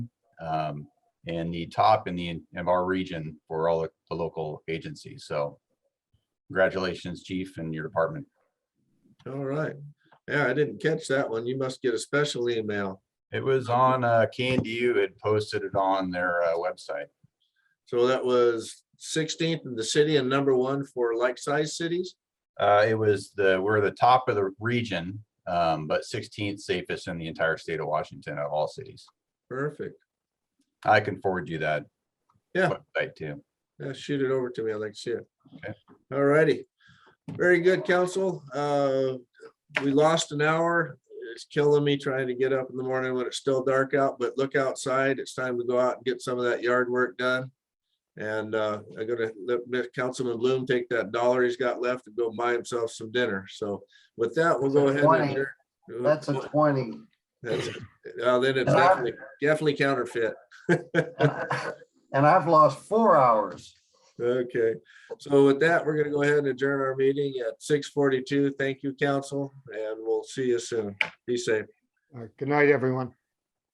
um, and the top in the, of our region for all the- the local agencies. So congratulations, chief, and your department. All right. Yeah, I didn't catch that one. You must get a special email. It was on, uh, CanDU had posted it on their, uh, website. So that was sixteenth in the city and number one for like-sized cities. Uh, it was the, we're the top of the region, um, but sixteenth safest in the entire state of Washington of all cities. Perfect. I can forward you that. Yeah. Website too. Yeah, shoot it over to me. I'd like to see it. Okay. All righty. Very good, council. Uh, we lost an hour. It's killing me trying to get up in the morning when it's still dark out, but look outside. It's time to go out and get some of that yard work done. And, uh, I'm gonna let- let Councilman Bloom take that dollar he's got left and go buy himself some dinner. So with that, we'll go ahead. and Twenty. adjourn. That's a twenty. That's, uh, then it's And I- definitely, definitely counterfeit. And I- and I've lost four hours. Okay, so with that, we're gonna go ahead and adjourn our meeting at six forty-two. Thank you, council, and we'll see you soon. Be safe. All right, Good night, everyone.